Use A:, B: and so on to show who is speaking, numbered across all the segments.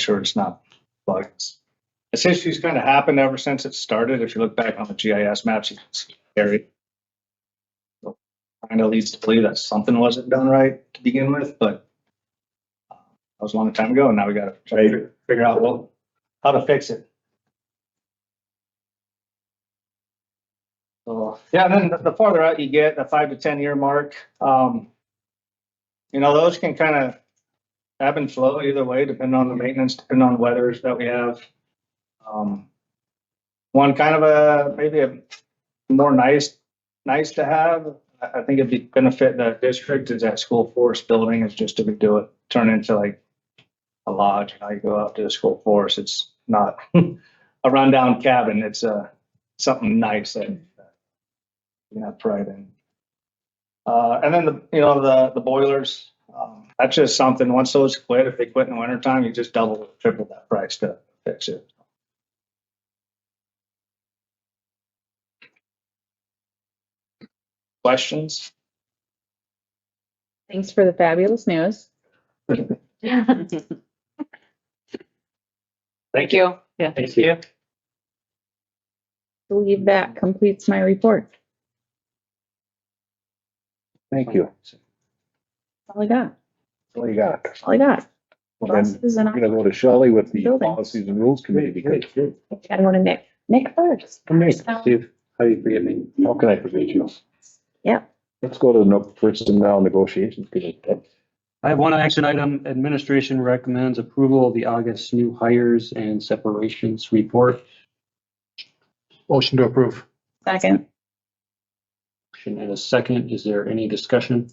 A: sure it's not bugs. This issue's kind of happened ever since it started. If you look back on the GIS maps, you can see area. Kind of leads to believe that something wasn't done right to begin with, but uh, that was a long time ago and now we gotta try to figure out what, how to fix it. So, yeah, and then the- the farther out you get, the five to ten year mark, um, you know, those can kind of ebb and flow either way, depending on the maintenance, depending on weathers that we have. Um, one kind of a, maybe a more nice, nice to have, I, I think it'd be benefit the district is that school forest building is just if we do it, turn into like a lodge, Now you go out to the school forest, it's not a rundown cabin, it's a, something nice that you know, pride in. Uh, and then the, you know, the, the boilers, um, that's just something, once those quit, if they quit in the wintertime, you just double, triple that price to fix it. Questions?
B: Thanks for the fabulous news.
A: Thank you.
B: Yeah.
A: Thank you.
B: I believe that completes my report.
C: Thank you.
B: That's All I got,
C: What do you got?
B: That's all I got.
C: Well, then,
B: Buses and
C: We're gonna go to Shelley with the
B: Building.
C: policies and rules committee because
B: I want to Nick, Nick first.
D: Steve, how you forget me?
C: how can I forget you?
B: Yeah.
C: Let's go to the no- personnel negotiations committee.
D: I have one action item. Administration recommends approval of the August new hires and separations report.
E: Motion to approve.
B: Second,
D: Action and a second. Is there any discussion?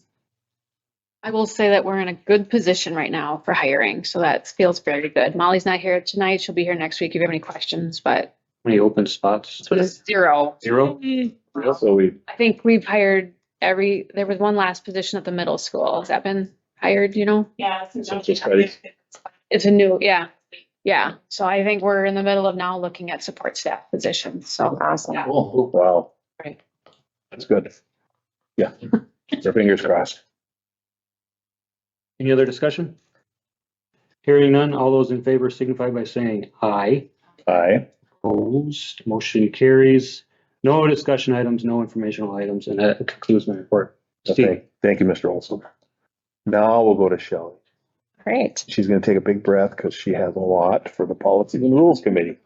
F: I will say that we're in a good position right now for hiring, so that feels very good. Molly's not here tonight. She'll be here next week if you have any questions, but
D: Any open spots?
F: it was zero.
D: Zero?
C: So we,
F: I think we've hired every, there was one last position at the middle school. Has that been hired, you know?
G: Yeah. so now we
C: Census
G: have
C: credits.
G: to-
F: It's a new, yeah, yeah. So I think we're in the middle of now looking at support staff positions, so.
B: awesome.
C: wow.
F: Right.
C: That's good. Yeah, our fingers crossed.
D: Any other discussion? Hearing none, all those in favor signify by saying aye.
C: Aye.
D: Opposed, motion carries. No discussion items, no informational items, and that concludes my report. Steve,
C: Thank thank you, Mr. Olson. Now we'll go to Shelley.
B: Great.
C: She's gonna take a big breath because she has a lot for the policies and rules committee.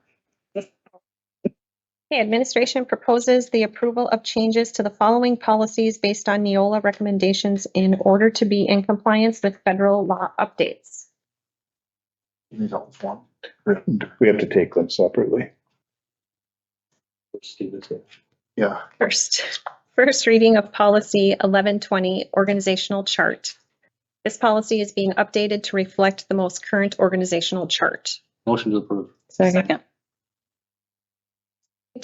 H: Okay, administration proposes the approval of changes to the following policies based on Neola recommendations in order to be in compliance with federal law updates.
C: We have to take them separately.
D: Steve is it.
E: Yeah.
H: First, first reading of policy 1120, organizational chart. This policy is being updated to reflect the most current organizational chart.
D: Motion to approve.
B: Second.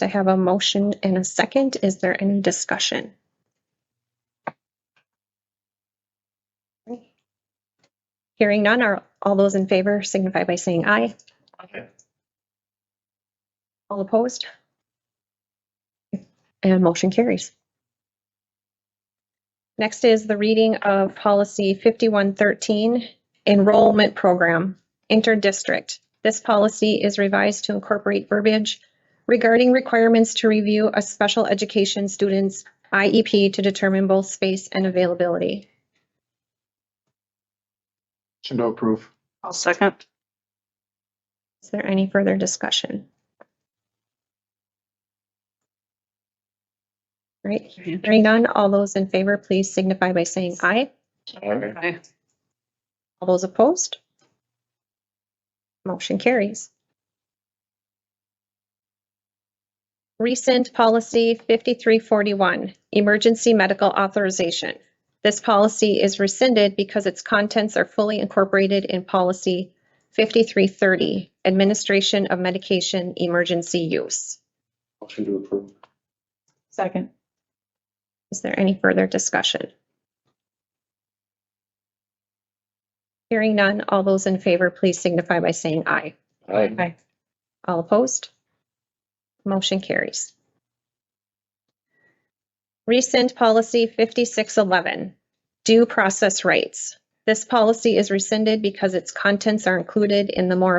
H: I have a motion and a second. Is there any discussion? Hearing none, are all those in favor signify by saying aye. All opposed? And motion carries. Next is the reading of policy 5113, enrollment program, interdistrict. This policy is revised to incorporate verbiage regarding requirements to review a special education student's IEP to determine both space and availability.
E: Motion to approve.
B: I'll second.
H: Is there any further discussion? All Right, hearing none, all those in favor, please signify by saying aye.
F: Aye.
H: All those opposed? Motion carries. Recent policy 5341, emergency medical authorization. This policy is rescinded because its contents are fully incorporated in policy 5330, administration of medication emergency use.
D: Motion to approve.
B: Second.
H: Is there any further discussion? Hearing none, all those in favor, please signify by saying aye.
D: Aye.
H: All opposed? Motion carries. Rescind policy 5611, due process rights. This policy is rescinded because its contents are included in the more